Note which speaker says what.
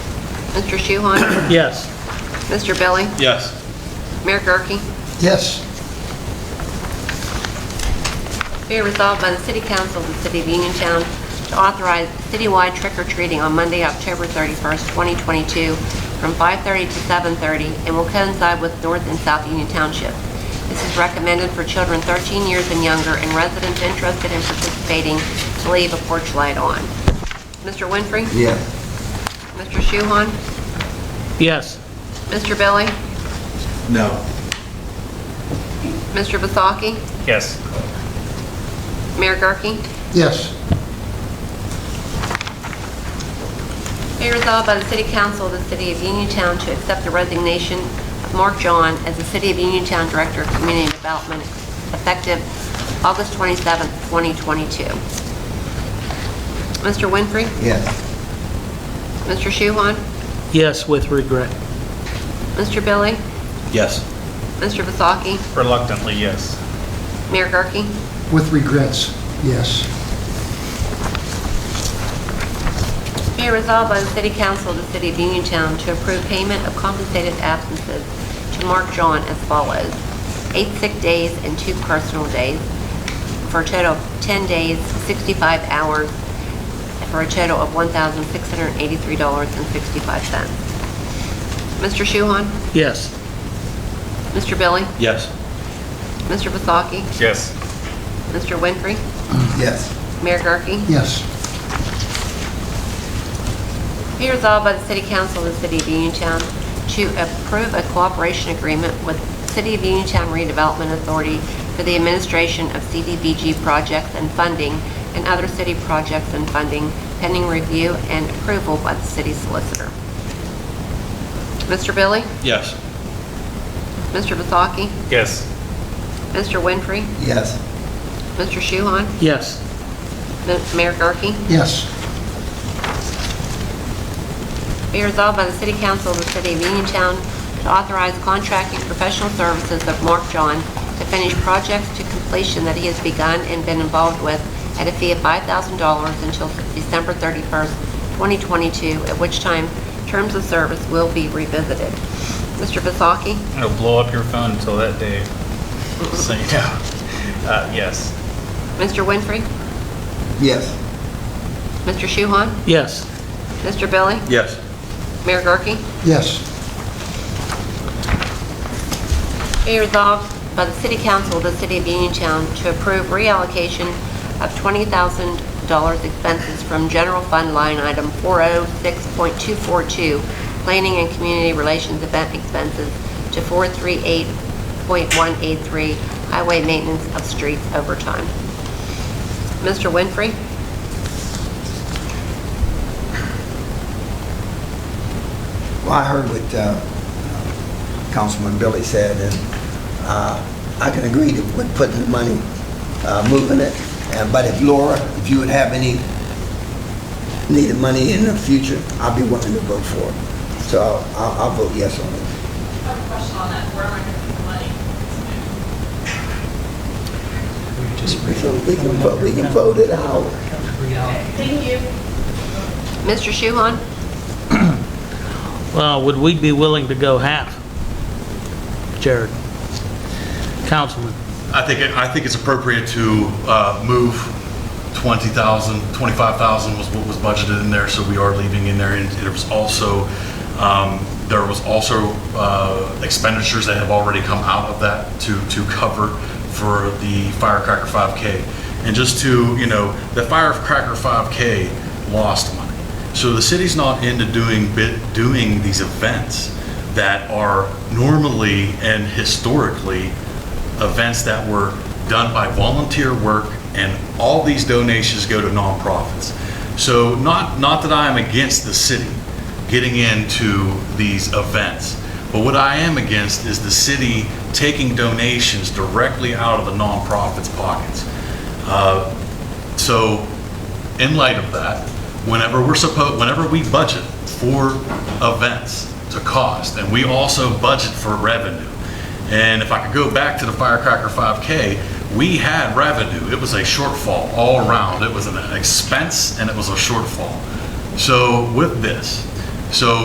Speaker 1: Mr. Shuhon?
Speaker 2: Yes.
Speaker 1: Mr. Billy?
Speaker 3: Yes.
Speaker 1: Mayor Gurke?
Speaker 4: Yes.
Speaker 1: Be it resolved by the City Council of the City of Uniontown to authorize citywide trick-or-treating on Monday, October 31st, 2022, from 5:30 to 7:30, and will coincide with North and South Union Township. This is recommended for children 13 years and younger, and residents interested in participating to leave a porch light on. Mr. Winfrey?
Speaker 4: Yes.
Speaker 1: Mr. Shuhon?
Speaker 2: Yes.
Speaker 1: Mr. Billy?
Speaker 3: No.
Speaker 1: Mr. Vasaki?
Speaker 3: Yes.
Speaker 1: Mayor Gurke?
Speaker 4: Yes.
Speaker 1: Be resolved by the City Council of the City of Uniontown to accept the resignation of Mark John as the City of Uniontown Director of Community Development effective August 27, 2022. Mr. Winfrey?
Speaker 4: Yes.
Speaker 1: Mr. Shuhon?
Speaker 2: Yes, with regret.
Speaker 1: Mr. Billy?
Speaker 3: Yes.
Speaker 1: Mr. Vasaki?
Speaker 3: Reluctantly, yes.
Speaker 1: Mayor Gurke?
Speaker 4: With regrets, yes.
Speaker 1: Be resolved by the City Council of the City of Uniontown to approve payment of compensated absences to Mark John as follows. Eight sick days and two personal days, for a total of 10 days, 65 hours, for a total of $1,683.65. Mr. Shuhon?
Speaker 2: Yes.
Speaker 1: Mr. Billy?
Speaker 3: Yes.
Speaker 1: Mr. Vasaki?
Speaker 3: Yes.
Speaker 1: Mr. Winfrey?
Speaker 4: Yes.
Speaker 1: Mayor Gurke?
Speaker 4: Yes.
Speaker 1: Be resolved by the City Council of the City of Uniontown to approve a cooperation agreement with City of Uniontown Redevelopment Authority for the administration of CDBG projects and funding and other city projects and funding pending review and approval by the city solicitor. Mr. Billy?
Speaker 3: Yes.
Speaker 1: Mr. Vasaki?
Speaker 3: Yes.
Speaker 1: Mr. Winfrey?
Speaker 4: Yes.
Speaker 1: Mr. Shuhon?
Speaker 2: Yes.
Speaker 1: Ma- Mayor Gurke?
Speaker 4: Yes.
Speaker 1: Be resolved by the City Council of the City of Uniontown to authorize contracting professional services of Mark John to finish projects to completion that he has begun and been involved with at a fee of $5,000 until December 31st, 2022, at which time terms of service will be revisited. Mr. Vasaki?
Speaker 5: It'll blow up your phone until that day. So, yeah. Uh, yes.
Speaker 1: Mr. Winfrey?
Speaker 4: Yes.
Speaker 1: Mr. Shuhon?
Speaker 2: Yes.
Speaker 1: Mr. Billy?
Speaker 3: Yes.
Speaker 1: Mayor Gurke?
Speaker 4: Yes.
Speaker 1: Be resolved by the City Council of the City of Uniontown to approve reallocation of $20,000 expenses from General Fund line item 406.242, Planning and Community Relations Event Expenses, to 438.183, Highway Maintenance of Streets Overtime. Mr. Winfrey?
Speaker 6: Well, I heard what uh, Councilman Billy said, and uh, I can agree to- with putting the money, uh, moving it, And- but if Laura, if you would have any needed money in the future, I'd be willing to vote for it. So I'll- I'll I'll vote yes on it.
Speaker 7: I have a question on that, where am I going to get the money?
Speaker 6: So we can vote, we can vote it out.
Speaker 7: Thank you.
Speaker 1: Mr. Shuhon?
Speaker 2: Well, would we be willing to go half? Jared? Councilman?
Speaker 3: I think, I think it's appropriate to uh, move 20,000, 25,000 was what was budgeted in there, so we are leaving in there. And it was also, um, there was also uh, expenditures that have already come out of that to, to cover for the Firecracker 5K. And just to, you know, the Firecracker 5K lost money. So the city's not into doing, bit- doing these events that are normally and historically events that were done by volunteer work, and all these donations go to nonprofits. So not, not that I am against the city getting into these events, but what I am against is the city taking donations directly out of the nonprofits' pockets. Uh, So in light of that, whenever we're supposed, whenever we budget for events to cost, and we also budget for revenue. And if I could go back to the Firecracker 5K, we had revenue. It was a shortfall all around. It was an expense and it was a shortfall. So with this, so